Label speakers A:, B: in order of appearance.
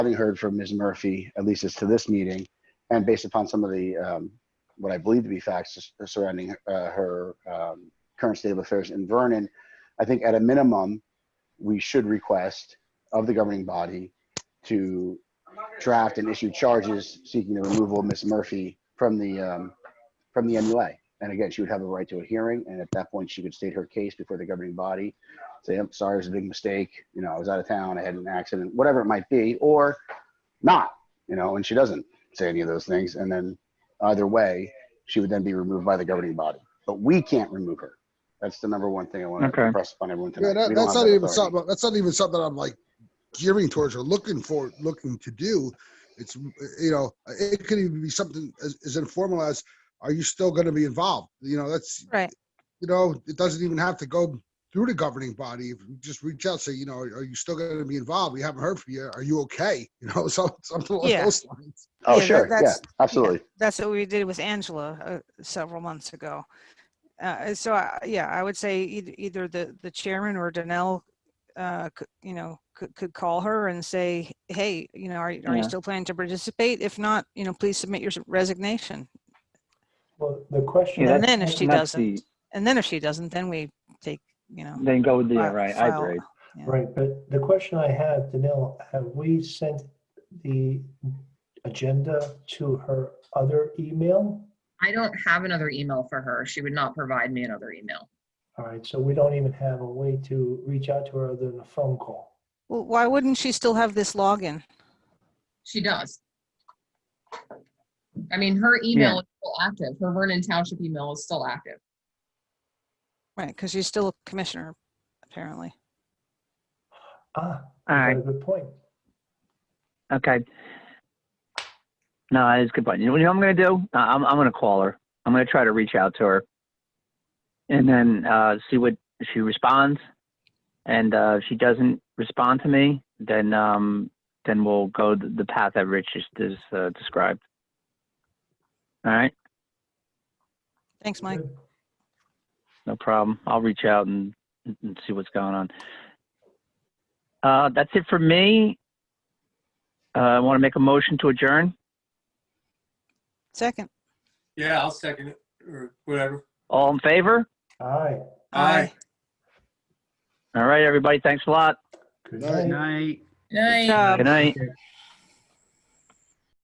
A: having heard from Ms. Murphy, at least as to this meeting, and based upon some of the, um, what I believe to be facts s- surrounding uh, her um, current state of affairs in Vernon, I think at a minimum, we should request of the governing body to draft and issue charges seeking the removal of Ms. Murphy from the, um, from the MUA. And again, she would have a right to a hearing, and at that point, she could state her case before the governing body. Say, I'm sorry, it was a big mistake. You know, I was out of town, I had an accident, whatever it might be, or not, you know, and she doesn't say any of those things. And then either way, she would then be removed by the governing body. But we can't remove her. That's the number one thing I want to
B: Okay.
A: impress upon everyone tonight.
C: Yeah, that,
A: We don't
C: that's
A: have
C: not
A: that
C: even
A: authority.
C: something. That's not even something I'm like gearing towards or looking for, looking to do. It's you know, it could even be something as, as informal as, are you still going to be involved? You know, that's
D: Right.
C: You know, it doesn't even have to go through the governing body. If you just reach out, say, you know, are you still going to be involved? We haven't heard from you. Are you okay? You know, so, something along
D: Yeah.
C: those lines.
A: Oh,
D: Yeah, that-
A: sure. Yeah,
D: that's-
A: absolutely.
D: That's what we did with Angela uh, several months ago. Uh, so I, yeah, I would say either, either the, the chairman or Danell, uh, could, you know, could, could call her and say, hey, you know, are, you- are you
B: Yeah.
D: still planning to participate? If not, you know, please submit your resignation.
E: Well, the question.
D: Yeah,
B: Yeah,
D: And then if
B: that's-
D: she
B: that's the-
D: And then if she doesn't, then we take, you know,
B: Then go with the,
D: fi-
B: right, I
D: file-
B: agree.
E: Right, but the question I have, Danil, have we sent the agenda to her other email?
F: I don't have another email for her. She would not provide me another email.
E: All right, so we don't even have a way to reach out to her other than a phone call.
D: Well, why wouldn't she still have this login?
F: She does. I mean, her email is still active. Her Vernon Township email is still active.
D: Right, because she's still a commissioner, apparently.
E: Ah,
B: All
E: got a
B: right,
E: good point.
B: okay. No, that is a good point. You know what I'm gonna do? Uh, I'm, I'm gonna call her. I'm gonna try to reach out to her. And then, uh, see what, if she responds. And, uh, if she doesn't respond to me, then, um, then we'll go the the path that Rich just, is, uh, described. All right,
D: Thanks, Mike.
E: Good.
B: no problem. I'll reach out and, and see what's going on. Uh, that's it for me. Uh, I want to make a motion to adjourn.
D: Second.
G: Yeah, I'll second it or whatever.
B: All in favor?
E: All right.
G: Aye.
B: All right, everybody. Thanks a lot.
E: Good
C: Night.
E: night.
H: Night.
D: Good job.
B: Good night.